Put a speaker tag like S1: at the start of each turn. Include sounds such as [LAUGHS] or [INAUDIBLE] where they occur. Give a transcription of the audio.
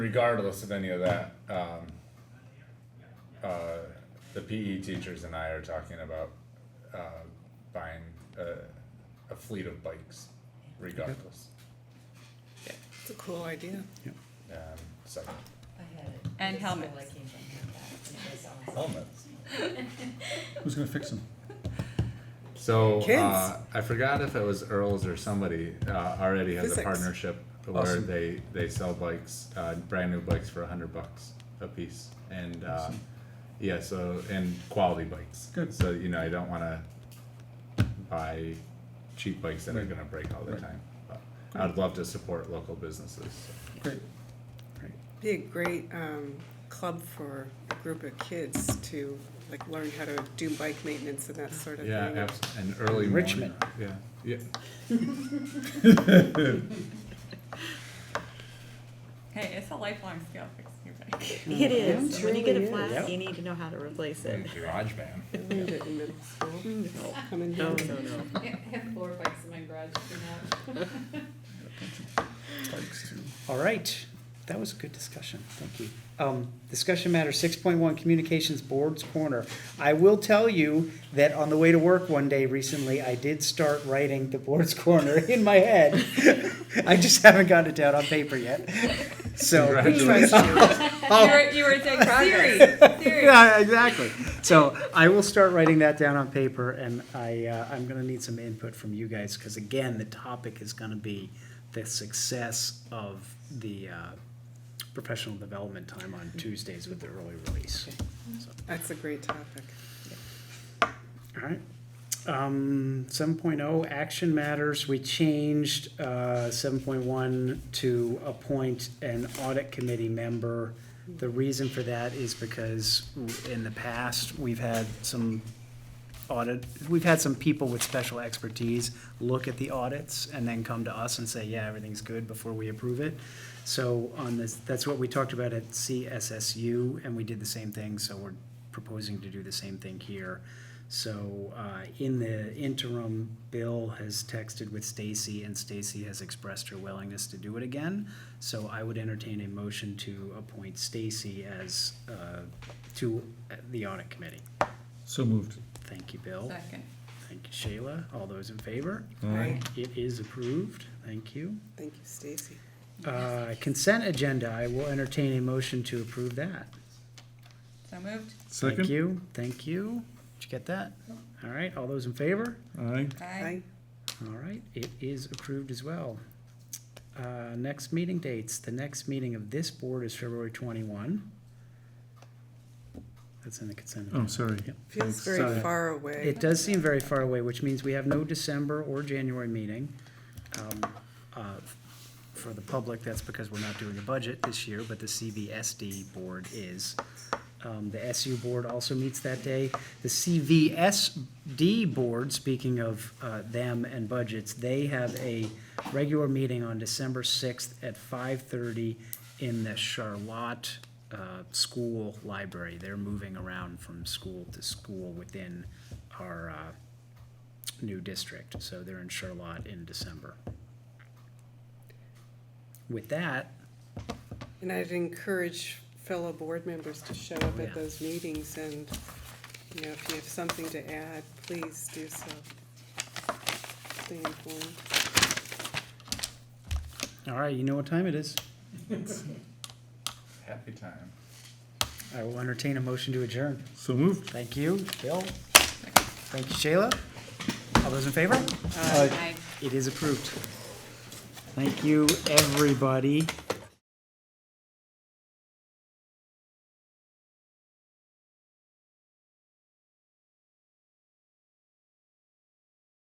S1: regardless of any of that, um, uh, the PE teachers and I are talking about, uh, buying a, a fleet of bikes regardless.
S2: It's a cool idea.
S1: Um, so,
S3: I had it.
S4: And
S3: It's still
S4: helmets.
S3: like came from that, and it was awesome.
S1: helmets.
S5: Who's gonna fix them?
S1: So, uh,
S2: Kids.
S1: I forgot if it was Earl's or somebody, uh, already has a
S2: Physics.
S1: partnership where
S5: Awesome.
S1: they, they sell bikes, uh, brand new bikes for a hundred bucks a piece. And, uh,
S5: Awesome.
S1: yeah, so, and quality bikes.
S5: Good.
S1: So, you know, I don't wanna buy cheap bikes that are gonna break all the
S5: Right.
S1: time. But I'd love to support local businesses.
S5: Great.
S2: Be a great um, club for a group of kids to like learn how to do bike maintenance and that sort of
S1: Yeah,
S2: thing.
S1: abs- and early morning.
S5: Enrichment.
S1: Yeah, yeah,
S4: Hey, it's a lifelong skill fixing your bike.
S6: It is.
S2: It
S6: When you get
S2: truly
S6: it flat,
S5: is.
S6: you need to know how to replace it.
S1: garage band.
S2: Learned it in middle school.
S6: No,
S2: Come in
S6: no,
S2: here.
S6: no, no.
S3: I have four bikes in my garage for now.
S5: Bikes too.
S7: All right, that was a good discussion, thank you. Um, discussion matter six point one, communications boards corner. I will tell you that on the way to work one day recently, I did start writing the boards [LAUGHS] corner in my head. [LAUGHS] I just haven't gotten it down on paper yet, [LAUGHS] so.
S1: Congratulations.
S4: You were, you were
S3: [LAUGHS]
S4: saying Siri, Siri.
S7: [LAUGHS] Yeah, exactly. So I will start writing that down on paper and I, uh, I'm gonna need some input from you guys, cause again, the topic is gonna be the success of the, uh, professional development time on Tuesdays with the early release.
S2: That's a great topic.
S7: All right. Um, seven action matters, we changed, uh, seven point one to appoint an audit committee member. The reason for that is because in the past, we've had some audit, we've had some people with special expertise look at the audits and then come to us and say, yeah, everything's good before we approve it. So on this, that's what we talked about at CSSU, and we did the same thing, so we're proposing to do the same thing here. So uh, in the interim, Bill has texted with Stacy, and Stacy has expressed her willingness to do it again. So I would entertain a motion to appoint Stacy as, uh, to the audit committee.
S5: So moved.
S7: Thank you, Bill.
S4: Second.
S7: Thank you, Shayla. All those in favor?
S2: Right.
S7: It is approved. Thank you.
S2: Thank you, Stacy.
S7: Uh, Consent agenda, I will entertain a motion to approve that.
S4: So moved.
S7: Thank
S5: Second?
S7: you, thank you. Did you get that? All right, all those in favor?
S5: Aye.
S4: Aye.
S2: Hi.
S7: All right, it is approved as well. Uh, Next meeting dates, the next meeting of this board is February 21. That's in the consent.
S5: Oh,
S7: agenda.
S5: sorry.
S7: Yep.
S2: Feels
S5: Thanks.
S2: very
S7: Sorry.
S2: far away.
S7: It does seem very far away, which means we have no December or January meeting. Um, uh, For the public, that's because we're not doing a budget this year, but the CVSD board is. Um, The SU board also meets that day. The CVSD board, speaking of uh, them and budgets, they have a regular meeting on December 6th at 5:30 in the Charlotte uh, School Library. They're moving around from school to school within our uh, new district. So they're in Charlotte in December. With that,
S2: And I'd encourage fellow board members to show up
S7: Yeah.
S2: at those meetings and, you know, if you have something to add, please do so. Stay informed.
S7: all right, you know what time it is.
S1: Happy time.
S7: I will entertain a motion to adjourn.
S5: So moved.
S7: Thank you, Bill. Thank you, Shayla. All those in favor?
S4: Aye.
S7: It is approved. Thank you, everybody.